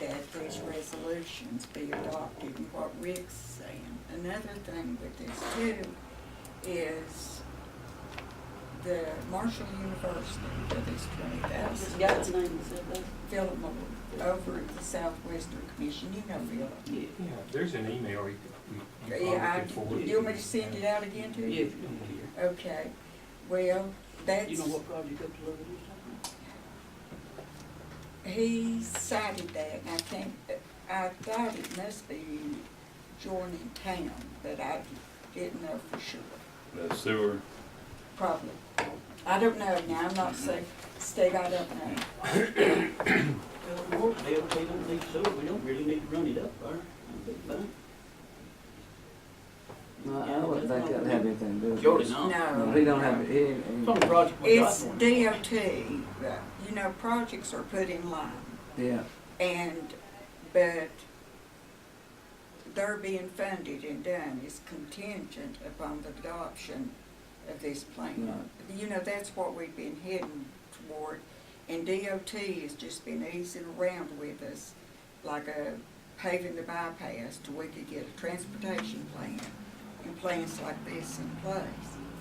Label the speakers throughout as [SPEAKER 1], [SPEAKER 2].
[SPEAKER 1] these resolutions be adopted and what Rick's saying. Another thing with this too is the Marshall University for this twenty thousand.
[SPEAKER 2] God's name is that,
[SPEAKER 1] Philip Moore over at the Southwestern Commission, you know Philip.
[SPEAKER 2] yeah.
[SPEAKER 3] Yeah, there's an email you could,
[SPEAKER 1] Yeah,
[SPEAKER 3] you probably
[SPEAKER 1] I,
[SPEAKER 3] could forward.
[SPEAKER 1] do you want me to send it out again to
[SPEAKER 2] Yeah.
[SPEAKER 1] you? Okay, well, that's.
[SPEAKER 2] You know what project up to Liberty is
[SPEAKER 1] He cited that, and I think, I thought it must be joining town, but I didn't know for sure,
[SPEAKER 4] The sewer,
[SPEAKER 1] probably. I don't know now, I'm
[SPEAKER 5] Mm-hmm.
[SPEAKER 1] not saying, Steve, I don't know.
[SPEAKER 2] talking about? Uh, Morton, they, they don't need sewer, we don't really need to run it up there, I think, but.
[SPEAKER 5] No, I wouldn't think that'd have anything to do with it.
[SPEAKER 2] Surely not.
[SPEAKER 5] Uh, No,
[SPEAKER 1] No.
[SPEAKER 5] he don't have, he ain't.
[SPEAKER 2] It's on the project we got
[SPEAKER 1] It's
[SPEAKER 2] for him.
[SPEAKER 1] DOT, you know, projects are put in line,
[SPEAKER 5] Yeah,
[SPEAKER 1] and, but they're being funded and done is contingent upon the adoption of this plan. You know, that's what we've been heading toward, and DOT has just been easing around with us, like a paving the bypass till we could get a transportation plan and plans like this in place.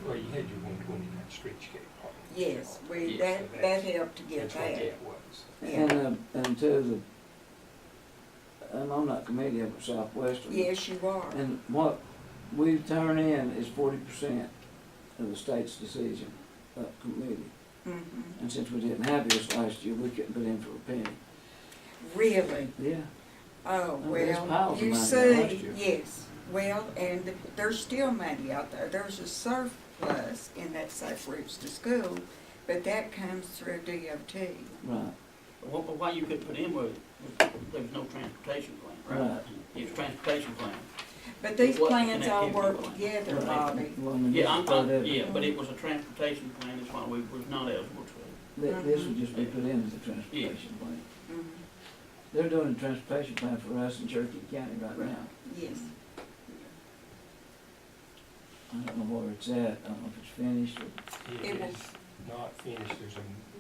[SPEAKER 3] Well, you had your one twenty-nine streetscape part.
[SPEAKER 1] Yes, we,
[SPEAKER 3] Yes,
[SPEAKER 1] that, that
[SPEAKER 3] that's-
[SPEAKER 1] helped to get
[SPEAKER 3] That's what
[SPEAKER 1] that.
[SPEAKER 3] that was.
[SPEAKER 1] Yeah.
[SPEAKER 5] and, uh, and two, the, and I'm not familiar with Southwestern.
[SPEAKER 1] Yes, you are.
[SPEAKER 5] And what we turn in is forty percent of the state's decision, uh, committee.
[SPEAKER 1] Mhm.
[SPEAKER 5] And since we didn't have this last year, we couldn't put in for a penny.
[SPEAKER 1] Really?
[SPEAKER 5] Yeah.
[SPEAKER 1] Oh,
[SPEAKER 5] Oh, there's
[SPEAKER 1] well,
[SPEAKER 5] piles of
[SPEAKER 1] you
[SPEAKER 5] money there last
[SPEAKER 1] see,
[SPEAKER 5] year.
[SPEAKER 1] yes, well, and there's still money out there, there's a surplus in that safe routes to school, but that comes through DOT.
[SPEAKER 5] Right,
[SPEAKER 2] Well, but why you couldn't put in was, was there was no transportation plan, right?
[SPEAKER 5] Right.
[SPEAKER 2] It was transportation plan.
[SPEAKER 1] But these
[SPEAKER 2] What
[SPEAKER 1] plans all
[SPEAKER 2] connectivity
[SPEAKER 1] work
[SPEAKER 2] line?
[SPEAKER 1] together,
[SPEAKER 2] Right.
[SPEAKER 1] Bobby.
[SPEAKER 5] Well, I mean,
[SPEAKER 2] Yeah, I'm,
[SPEAKER 5] this is part
[SPEAKER 2] i
[SPEAKER 5] of it.
[SPEAKER 2] yeah, but it was a transportation plan, that's why we was not eligible to.
[SPEAKER 5] Th- This would just be
[SPEAKER 2] Mm-hmm.
[SPEAKER 5] put in as a transportation plan.
[SPEAKER 1] Mhm.
[SPEAKER 5] They're doing a transportation plan for us in Cherokee County right
[SPEAKER 1] Right.
[SPEAKER 5] now.
[SPEAKER 1] Yes,
[SPEAKER 5] I don't know where it's at, I don't know if it's finished or,
[SPEAKER 3] It
[SPEAKER 1] It will-
[SPEAKER 3] is not finished, there's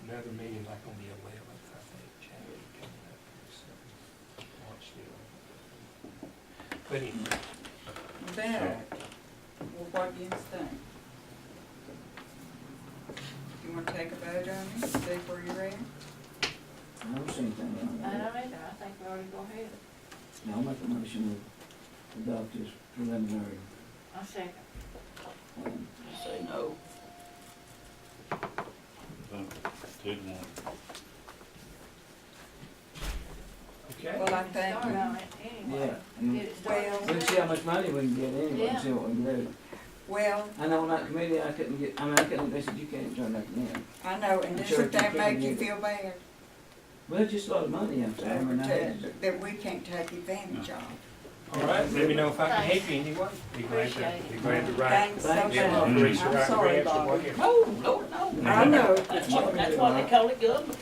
[SPEAKER 3] another meeting like on the eleventh, I think, January coming up, so, March the 11th. But anyway,
[SPEAKER 1] but, well, what do you think? You wanna take a vote on it, see where you're at?
[SPEAKER 5] I don't see anything wrong
[SPEAKER 6] I
[SPEAKER 5] with
[SPEAKER 6] don't
[SPEAKER 5] it.
[SPEAKER 6] either, I think we ought to go ahead.
[SPEAKER 5] Now, I'll make a motion to adopt this preliminary
[SPEAKER 6] I'll second.
[SPEAKER 5] plan.
[SPEAKER 2] Say no.
[SPEAKER 4] the two to one.
[SPEAKER 3] okay,
[SPEAKER 1] Well, I
[SPEAKER 6] Start
[SPEAKER 1] think, Mm.
[SPEAKER 6] on it anyway.
[SPEAKER 5] Yeah, and
[SPEAKER 6] Get it started.
[SPEAKER 5] we'll see how much money we can get anyway, and
[SPEAKER 6] Yeah.
[SPEAKER 5] see what we can do.
[SPEAKER 1] well,
[SPEAKER 5] I know on that committee, I couldn't get, I mean, I couldn't, they said, you can't turn that in.
[SPEAKER 1] I know, and
[SPEAKER 5] I'm sure
[SPEAKER 1] doesn't
[SPEAKER 5] you
[SPEAKER 1] that
[SPEAKER 5] can
[SPEAKER 1] make you
[SPEAKER 5] use it.
[SPEAKER 1] feel bad?
[SPEAKER 5] Well, it's just a lot of money, I'm sorry, I mean, I had to-
[SPEAKER 1] that that we can't take advantage of.
[SPEAKER 3] all right, let me know if I can help you anyway. Be glad to,
[SPEAKER 6] Appreciate it.
[SPEAKER 3] be glad to ride.
[SPEAKER 1] Thanks so
[SPEAKER 5] Thanks.
[SPEAKER 3] Yeah,
[SPEAKER 1] much.
[SPEAKER 3] I'll race you
[SPEAKER 1] I'm
[SPEAKER 3] right
[SPEAKER 1] sorry,
[SPEAKER 3] grabs and
[SPEAKER 1] Bobby.
[SPEAKER 3] whatever.
[SPEAKER 2] No, no, no.
[SPEAKER 1] I know.
[SPEAKER 2] That's what, that's why they call it government.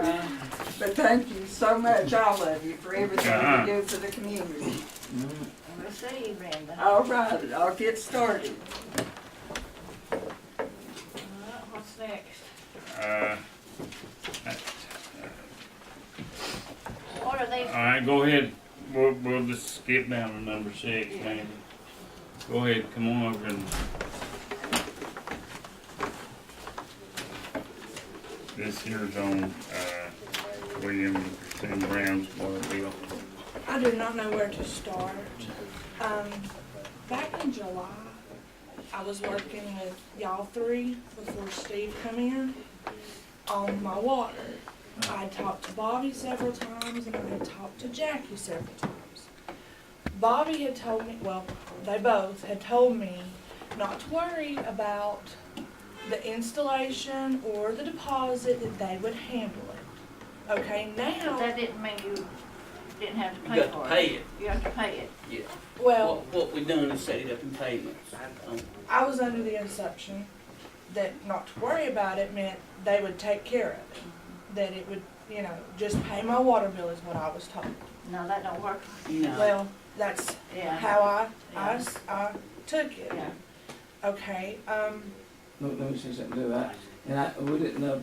[SPEAKER 5] Yeah.
[SPEAKER 1] But thank you so much, all of you, for everything
[SPEAKER 4] Uh-huh.
[SPEAKER 1] you do for the community.
[SPEAKER 5] Mhm.
[SPEAKER 6] We'll see, Brenda. All
[SPEAKER 1] All right, I'll get started.
[SPEAKER 6] right, what's next?
[SPEAKER 4] Uh,
[SPEAKER 6] What are these,
[SPEAKER 4] all right, go ahead. We'll, we'll just skip down to number six, maybe. Go ahead, come on over and. This here's on, uh, William and Christine Brown's water bill.
[SPEAKER 7] I do not know where to start. Um, back in July, I was working with y'all three before Steve come in on my water. I talked to Bobby several times and I had talked to Jackie several times. Bobby had told me, well, they both had told me not to worry about the installation or the deposit, that they would handle it. Okay, now.
[SPEAKER 6] that didn't mean you didn't have to
[SPEAKER 2] You
[SPEAKER 6] pay
[SPEAKER 2] got to
[SPEAKER 6] for
[SPEAKER 2] pay
[SPEAKER 6] it.
[SPEAKER 2] it.
[SPEAKER 6] You have to pay it.
[SPEAKER 7] Well,
[SPEAKER 2] What, what we done is set it up in payments. Um,
[SPEAKER 7] I was under the assumption that not to worry about it meant they would take care of
[SPEAKER 6] Mm-hmm.
[SPEAKER 7] it. That it would, you know, just pay my water bill is what I was told.
[SPEAKER 6] No, that don't work,
[SPEAKER 2] No,
[SPEAKER 7] Well, that's
[SPEAKER 6] yeah,
[SPEAKER 7] how I, I s- I took it.
[SPEAKER 6] yeah.
[SPEAKER 7] Okay, um,
[SPEAKER 5] Let let me see something, do I, and I, we didn't know